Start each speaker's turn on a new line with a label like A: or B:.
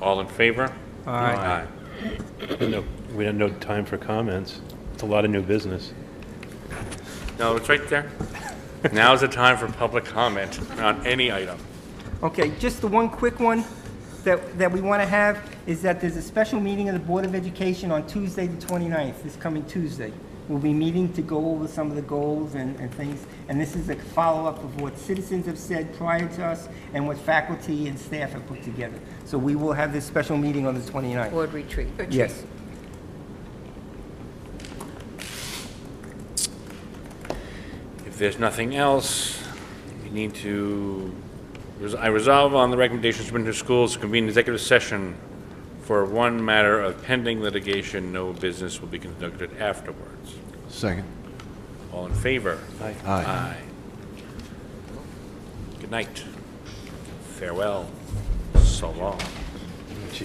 A: All in favor? Aye.
B: No, we had no time for comments. It's a lot of new business.
A: No, it's right there. Now's the time for public comment on any item.
C: Okay, just the one quick one that, that we want to have is that there's a special meeting of the Board of Education on Tuesday, the 29th, this coming Tuesday. We'll be meeting to go over some of the goals and, and things, and this is a follow-up of what citizens have said prior to us and what faculty and staff have put together. So we will have this special meeting on the 29th.
D: Board retreat.
C: Yes.
A: If there's nothing else, we need to, res- I resolve on the recommendations from the schools to convene executive session for one matter of pending litigation. No business will be conducted afterwards.
E: Second.
A: All in favor?
E: Aye.
A: Good night. Farewell. So long.